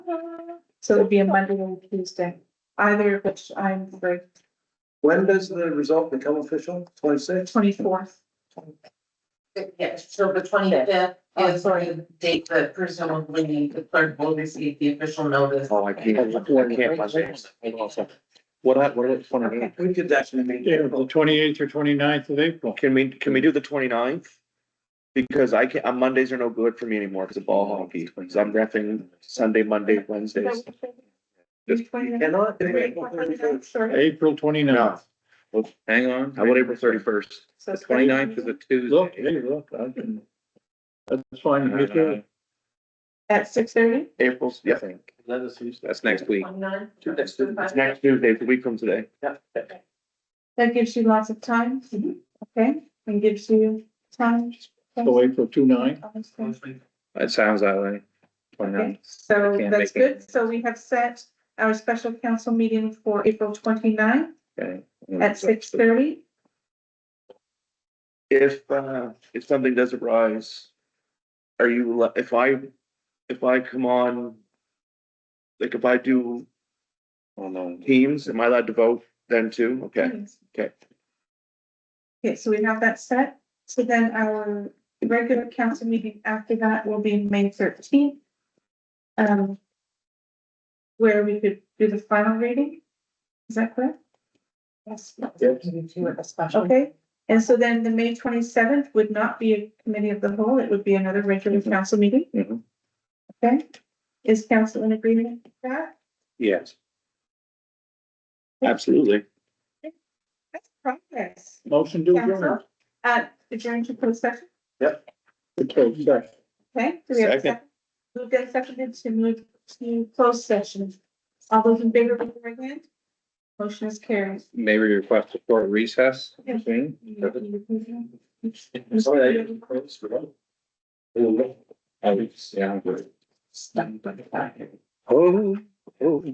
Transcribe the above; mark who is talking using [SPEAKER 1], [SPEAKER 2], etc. [SPEAKER 1] So it'd be a Monday or a Tuesday, either of which I'm free,
[SPEAKER 2] When does the result become official? Twenty-six?
[SPEAKER 1] twenty-fourth.
[SPEAKER 3] Yes, so the twenty fifth
[SPEAKER 1] Oh,
[SPEAKER 3] is
[SPEAKER 1] sorry.
[SPEAKER 3] the date that presumably the clerk will receive the official notice.
[SPEAKER 4] Oh, I can't, I can't Monday. What, I- what, is it, 28?
[SPEAKER 2] We could definitely meet.
[SPEAKER 5] Yeah, the twenty-eighth or 29th of April.
[SPEAKER 4] can we, can we do the 29th? Because I can't, uh, Mondays are no good for me anymore because of ball hockey, so I'm repping Sunday, Monday, Wednesdays. Just-
[SPEAKER 2] Cannot do April 31st.
[SPEAKER 1] Sorry.
[SPEAKER 5] April 29th.
[SPEAKER 6] Hang on.
[SPEAKER 4] How about April thirty-first?
[SPEAKER 1] So
[SPEAKER 6] The
[SPEAKER 1] it's-
[SPEAKER 6] 29th is a
[SPEAKER 5] Look,
[SPEAKER 6] Tuesday.
[SPEAKER 5] hey, look, I can. That's fine.
[SPEAKER 6] Uh,
[SPEAKER 5] you do
[SPEAKER 1] At six thirty?
[SPEAKER 4] April's, yeah,
[SPEAKER 2] That is Tuesday.
[SPEAKER 6] That's next week.
[SPEAKER 3] Twenty-nine.
[SPEAKER 2] Next to-
[SPEAKER 4] it's next Tuesday, it's a week from today.
[SPEAKER 1] That gives you lots of time, okay, and gives you time.
[SPEAKER 5] it. So April 29th.
[SPEAKER 1] Okay.
[SPEAKER 6] It sounds that way.
[SPEAKER 1] Okay,
[SPEAKER 6] 29th.
[SPEAKER 1] so
[SPEAKER 6] I can't
[SPEAKER 1] that's
[SPEAKER 6] make it.
[SPEAKER 1] good. So we have set our special council meeting for April 29th
[SPEAKER 6] Okay.
[SPEAKER 1] at six thirty.
[SPEAKER 4] If, uh, if something does arise, are you, le- if I, if I come on, like if I do
[SPEAKER 6] Oh, no.
[SPEAKER 4] teams, am I allowed to vote then too? Okay, okay.
[SPEAKER 1] Okay, so we have that set. So then our regular council meeting after that will be May thirteenth. Um, where we could do the final reading. Is that correct? Yes. Okay, and so then the May twenty-seventh would not be a committee of the whole, it would be another regular council meeting?
[SPEAKER 4] Mhm.
[SPEAKER 1] Okay, is council in agreement with that?
[SPEAKER 4] Yes. Absolutely.
[SPEAKER 1] That's progress.
[SPEAKER 5] Motion to adjourn.
[SPEAKER 1] Council, uh, adjourn to closed session,
[SPEAKER 5] To close session.
[SPEAKER 1] okay? Do we have a
[SPEAKER 4] Second.
[SPEAKER 1] second? Moved and seconded to move to closed session. All those in favor, raise your right hand. Motion is carried.
[SPEAKER 6] Maybe request a short recess.
[SPEAKER 1] Yeah.
[SPEAKER 6] Thing.
[SPEAKER 2] Sorry, I didn't close for that.
[SPEAKER 6] Oh, oh.